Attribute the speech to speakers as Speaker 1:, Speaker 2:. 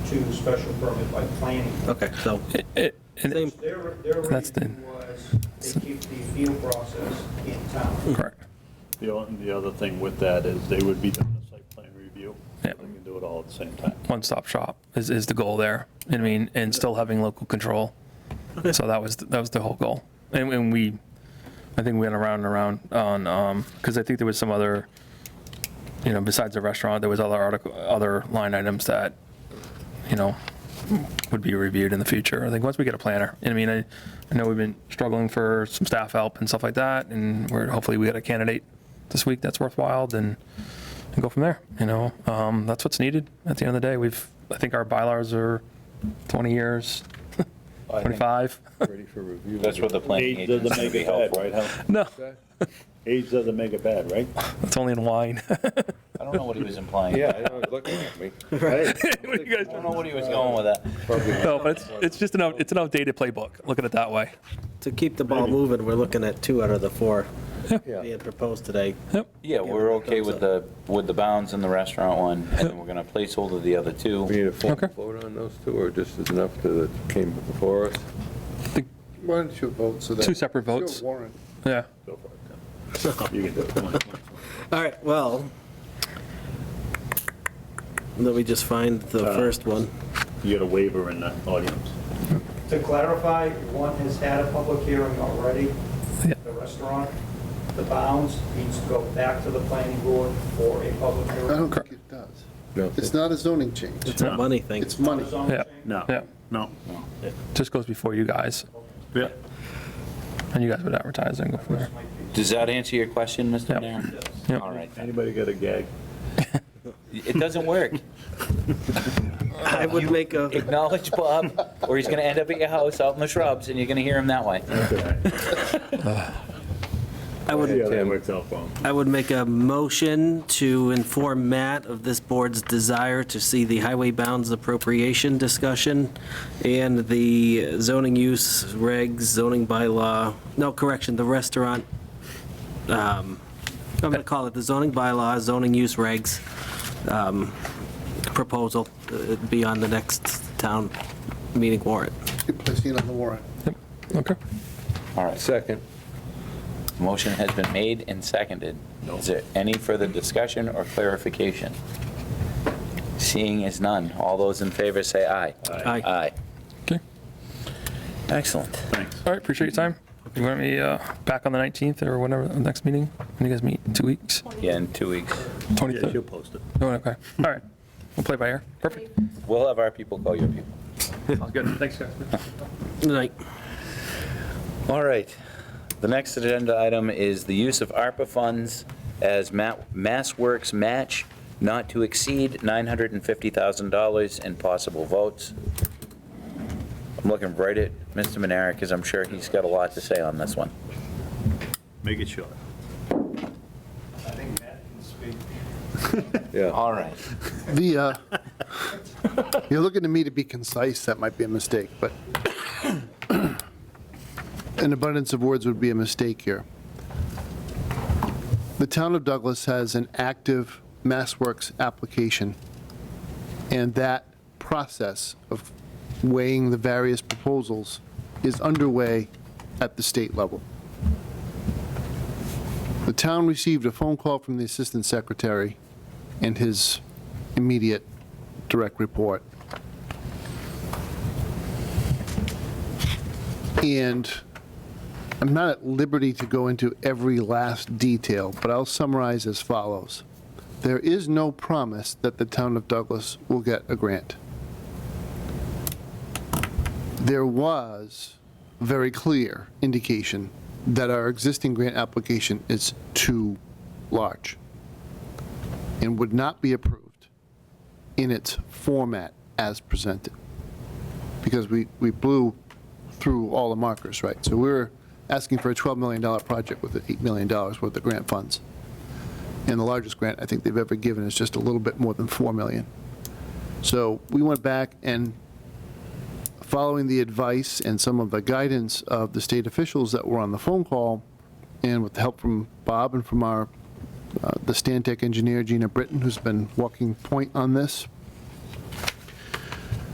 Speaker 1: to special permit by planning.
Speaker 2: Okay, so,
Speaker 3: It- and-
Speaker 2: same,
Speaker 1: Their, their
Speaker 3: That's the-
Speaker 1: reason was they keep the field process in town.
Speaker 3: Correct.
Speaker 4: The o- the other thing with that is they would be doing a site plan review. They
Speaker 3: Yeah.
Speaker 4: can do it all at the same time.
Speaker 3: One-stop shop is, is the goal there. I mean, and still having local control. So that was, that was the whole goal. And, and we, I think we went around and around on, um 'cause because I think there was some other, you know, besides the restaurant, there was other article, other line items that, you know, would be reviewed in the future. I think once we get a planner, and I mean, I, I know we've been struggling for some staff help and stuff like that, and we're, hopefully we get a candidate this week that's worthwhile, then and go from there, you know? Um, that's what's needed at the end of the day. We've, I think our bylaws are 20 years, 25.
Speaker 5: Ready for review.
Speaker 6: That's where the planning
Speaker 4: Age doesn't
Speaker 6: agent's gonna
Speaker 4: make
Speaker 6: be
Speaker 4: it bad,
Speaker 6: helpful.
Speaker 4: right? Hal?
Speaker 3: No,
Speaker 4: Age doesn't make it bad, right?
Speaker 3: it's only in wine.
Speaker 6: I don't know what he was implying.
Speaker 5: Yeah, I know, it's looking at me.
Speaker 3: What you guys-
Speaker 6: I don't know what he was going with that.
Speaker 5: Probably
Speaker 3: No, but it's, it's just an, out- it's an outdated playbook, look at it that way.
Speaker 2: to keep the ball moving, we're looking at two out of the four
Speaker 5: Yeah.
Speaker 2: being proposed today.
Speaker 6: Yeah, we're okay with the, with the bounds in the restaurant one, and then we're gonna placeholder the other
Speaker 5: We
Speaker 6: two.
Speaker 5: need a full
Speaker 3: Okay.
Speaker 5: vote on those two, or just is enough that came before us?
Speaker 3: Think-
Speaker 7: Why don't you vote so that?
Speaker 3: Two separate votes.
Speaker 7: Sure, Warren.
Speaker 3: Yeah,
Speaker 4: Go for it. Tim. You can do it. Come on, come on, come on.
Speaker 2: All right, well, let me just find the
Speaker 4: Uh,
Speaker 2: first one.
Speaker 4: You got a waiver in the audience.
Speaker 1: To clarify, one has had a public hearing already,
Speaker 3: Yeah.
Speaker 1: the restaurant, the bounds needs to go back to the planning board for a public
Speaker 7: I
Speaker 1: hearing.
Speaker 7: don't think it does.
Speaker 5: No.
Speaker 7: It's not a zoning change.
Speaker 2: It's a money thing.
Speaker 7: It's money.
Speaker 1: Zone
Speaker 3: Yeah.
Speaker 1: change.
Speaker 4: No,
Speaker 3: yeah,
Speaker 4: no.
Speaker 3: just goes before you guys,
Speaker 4: Yeah.
Speaker 3: and you guys would advertise and go from there.
Speaker 1: Might be-
Speaker 6: Does that answer your question, Mr.
Speaker 3: Yep.
Speaker 6: Mayor?
Speaker 3: Yep.
Speaker 6: All right. then.
Speaker 4: Anybody got a gag?
Speaker 6: It doesn't work.
Speaker 2: I would make a,
Speaker 6: Acknowledge Bob, or he's gonna end up at your house out in the shrubs, and you're gonna hear him that way.
Speaker 2: I would
Speaker 4: Yeah, that works out for 'em.
Speaker 2: I would make a motion to inform Matt of this board's desire to see the highway bounds appropriation discussion and the zoning use regs, zoning bylaw, no, correction, the restaurant, um, I'm going to call it the zoning bylaw, zoning use regs um, proposal, uh, be on the next town meeting warrant.
Speaker 7: You're placing it on the warrant.
Speaker 3: Okay.
Speaker 6: All right.
Speaker 5: Second.
Speaker 6: Motion has been made and seconded. Is there any further discussion or clarification? Seeing is none. All those in favor say aye.
Speaker 2: Aye.
Speaker 6: Aye.
Speaker 3: Okay.
Speaker 6: Excellent.
Speaker 3: All right, appreciate your time. You want me uh, back on the 19th or whatever, the next meeting? When you guys meet, two weeks?
Speaker 6: Yeah, in two weeks.
Speaker 4: Yeah,
Speaker 3: 23rd?
Speaker 4: she'll post it.
Speaker 3: Oh, Okay, all right. We'll play by ear. Perfect.
Speaker 6: We'll have our people call your people.
Speaker 3: Sounds good. Thanks, guys.
Speaker 2: Good night.
Speaker 6: All right. The next agenda item is the use of ARPA funds as Ma- Mass Works match not to exceed $950,000 in possible votes. I'm looking right at Mr. Manera because I'm sure he's got a lot to say on this one.
Speaker 4: Make it short.
Speaker 1: I think Matt can speak.
Speaker 5: Yeah.
Speaker 6: All right.
Speaker 7: The, uh, you're looking to me to be concise, that might be a mistake, but an abundance of words would be a mistake here. The town of Douglas has an active MassWorks application, and that process of weighing the various proposals is underway at the state level. The town received a phone call from the Assistant Secretary and his immediate direct report. And I'm not at liberty to go into every last detail, but I'll summarize as follows. There is no promise that the town of Douglas will get a grant. There was very clear indication that our existing grant application is too large and would not be approved in its format as presented. Because we, we blew through all the markers, right? So we were asking for a $12 million project with $8 million worth of grant funds. And the largest grant I think they've ever given is just a little bit more than 4 million. So we went back and, following the advice and some of the guidance of the state officials that were on the phone call, and with the help from Bob and from our uh, the Stantec engineer, Gina Britton, who's been walking point on this